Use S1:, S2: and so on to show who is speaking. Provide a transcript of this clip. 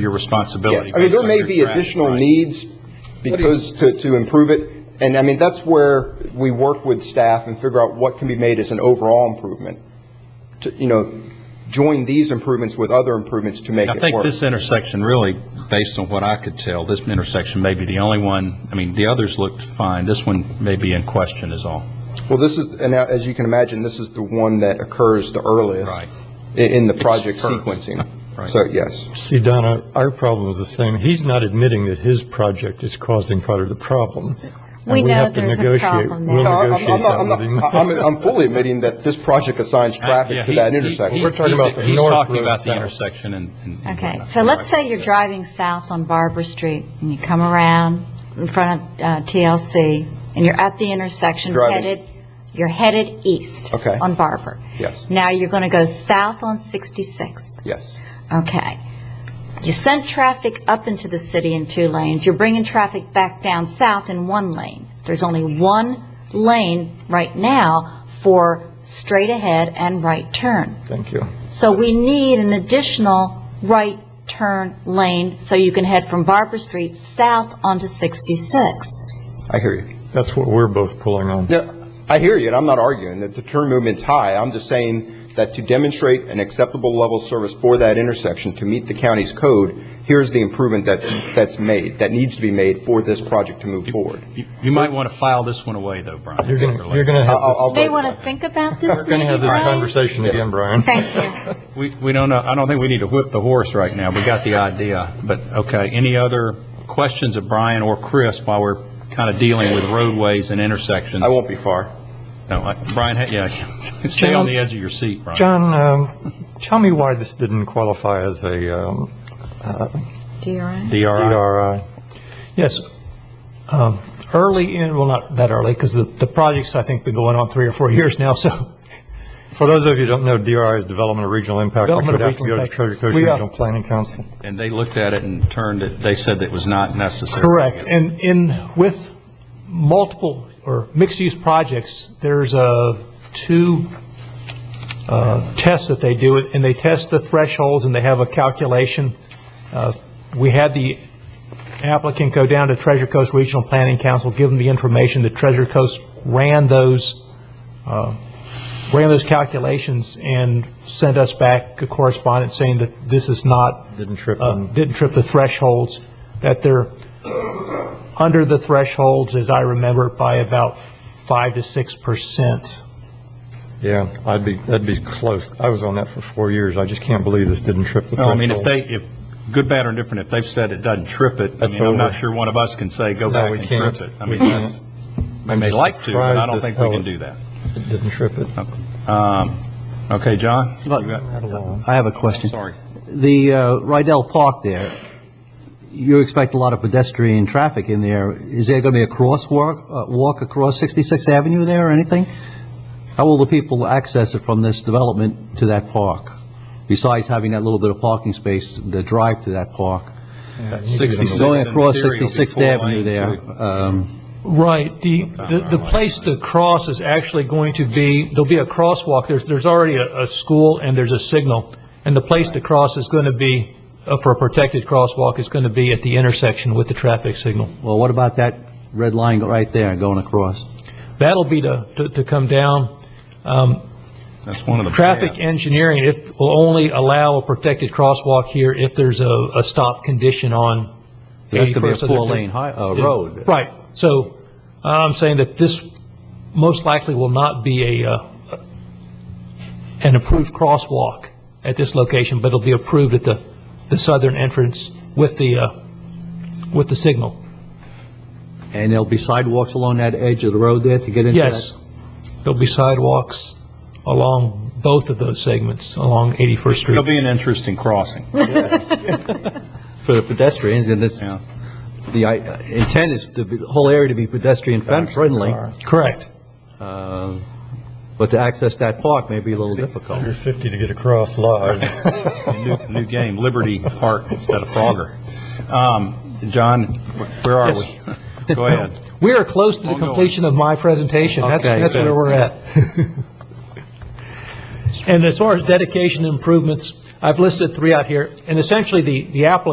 S1: your responsibility.
S2: I mean, there
S1: based
S2: may
S1: on
S2: be
S1: your draft,
S2: additional
S1: right.
S2: needs because, to, to improve it, and I mean, that's where we work with staff and figure out what can be made as an overall improvement. To, you know, join these improvements with other improvements to make
S1: I
S2: it
S1: think
S2: work.
S1: this intersection really, based on what I could tell, this intersection may be the only one, I mean, the others looked fine. This one may be in question is all.
S2: Well, this is, and now, as you can imagine, this is the one that occurs the earliest.
S1: Right.
S2: i- In, the project
S1: first.
S2: sequencing.
S1: Right.
S2: So, yes.
S3: See, Donna, our problem is the same. He's not admitting that his project is causing part of the problem. And
S4: We know
S3: have to
S4: there's a
S3: negotiate-
S4: problem there.
S3: We'll
S2: No, I'm,
S3: negotiate
S2: I'm, not-
S3: that
S2: I'm,
S3: with
S2: not-
S3: him.
S2: I'm, I'm fully admitting that this project assigns
S1: Uh, Yeah,
S2: traffic to
S1: he-
S2: that
S1: he-
S2: intersection.
S1: he-
S3: We're talking
S1: he's-
S3: about the
S1: he's
S3: north
S1: talking
S3: road
S1: about the
S3: south.
S1: intersection and. and- and
S4: Okay,
S1: whatnot.
S4: so let's say you're driving south on Barber Street, and you come around in front of uh, TLC, and you're at the intersection
S2: Driving.
S4: headed, you're headed east.
S2: Okay.
S4: On Barber.
S2: Yes.
S4: Now you're going to go south on 66th.
S2: Yes.
S4: Okay. You sent traffic up into the city in two lanes, you're bringing traffic back down south in one lane. There's only one lane right now for straight ahead and right turn.
S3: Thank you.
S4: So we need an additional right turn lane so you can head from Barber Street south onto 66.
S2: I hear you.
S3: That's what we're both pulling on.
S2: Yeah, I hear you, and I'm not arguing that the turn movement's high. I'm just saying that to demonstrate an acceptable level of service for that intersection to meet the county's code, here's the improvement that, that's made, that needs to be made for this project to move forward.
S1: You- You might want to file this one away, though, Brian.
S3: You're going to, you're going to have
S2: I'll-
S4: You
S2: I'll-
S3: this,
S4: May want to think about this
S3: we're going to have
S4: maybe,
S3: this
S4: Brian?
S3: conversation again, Brian.
S4: Thank you.
S1: We, we don't know, I don't think we need to whip the horse right now. We got the idea. But, okay, any other questions of Brian or Chris while we're kind of dealing with roadways and intersections?
S2: I won't be far.
S1: No, I- Brian, ha- yeah, stay on the edge of your seat, Brian.
S3: John, um, tell me why this didn't qualify as a um,
S4: Do you, Ryan?
S1: DRI.
S3: DRI.
S5: Yes. Um, Early in, well, not that early, because the, the project's, I think, been going on three or four years now, so.
S3: For those of you who don't know, DRI is Development of Regional Impact, which
S5: Development
S3: would
S5: of
S3: have to go
S5: Regional
S3: to
S5: Impact.
S3: Treasure Coast
S5: We are-
S3: Regional Planning Council.
S1: And they looked at it and turned it, they said that it was not necessary.
S5: Correct. And in, with multiple or mixed-use projects, there's uh two uh, tests that they do, and they test the thresholds, and they have a calculation. Uh, We had the applicant go down to Treasure Coast Regional Planning Council, give them the information, that Treasure Coast ran those uh, ran those calculations and sent us back a correspondence saying that this is not.
S3: Didn't trip
S5: uh,
S3: them.
S5: Didn't trip the thresholds, that they're under the thresholds, as I remember, by about five to six percent.
S3: Yeah, I'd be, that'd be close. I was on that for four years. I just can't believe this didn't trip the
S1: No,
S3: threshold.
S1: I mean, if they, if, good, bad, or indifferent, if they've said it doesn't trip it, I
S3: That's
S1: mean, I'm not
S3: over.
S1: sure one of us can say, go
S3: No,
S1: back
S3: we
S1: and trip
S3: can't.
S1: it. I
S3: We
S1: mean, that's,
S3: can't.
S1: we may
S3: just
S1: like to, but I
S3: surprised
S1: don't
S3: as
S1: think we
S3: hell
S1: can
S3: it-
S1: do that.
S3: It didn't trip it.
S1: Um, Okay, John? you got-
S6: I have a question.
S1: Sorry.
S6: The uh, Rydell Park there, you expect a lot of pedestrian traffic in there. Is there going to be a crosswalk, uh, walk across 66th Avenue there or anything? How will the people access it from this development to that park? Besides having that little bit of parking space, the drive to that park?
S1: 66
S6: Going across
S1: in theory will be
S6: 66th
S1: four
S6: Avenue
S1: lane,
S6: there.
S1: too.
S6: um,
S5: Right, the, the- the place to cross is actually going to be, there'll be a crosswalk, there's, there's already a, a school and there's a signal, and the place to cross is going to be, uh, for a protected crosswalk, is going to be at the intersection with the traffic signal.
S6: Well, what about that red line right there going across?
S5: That'll be to, to- to come down. Um,
S1: That's one of the.
S5: Traffic
S1: bad.
S5: engineering, if, will only allow a protected crosswalk here if there's a, a stop condition on
S6: That's
S5: 81st.
S6: going to be a
S5: So they're-
S6: four-lane hi- uh, road.
S5: Right, so uh, I'm saying that this most likely will not be a, uh, an approved crosswalk at this location, but it'll be approved at the, the southern entrance with the, uh, with the signal.
S6: And there'll be sidewalks along that edge of the road there to get into that?
S5: Yes, there'll be sidewalks along both of those segments, along 81st Street.
S1: It'll be an interesting crossing,
S6: for the pedestrians, and it's,
S1: yeah.
S6: the uh, intent is to be- the whole area to be pedestrian fen- friendly,
S5: Correct.
S6: uh, but to access that park may be a little difficult.
S3: You're 50 to get across live.
S1: New new game, Liberty Park instead of Frogger. Um, John, where are we? Go ahead.
S5: We are close to the
S1: Ongoing.
S5: completion of my presentation. That's,
S6: Okay.
S5: that's where we're at. And as far as dedication improvements, I've listed three out here, and essentially the, the applicant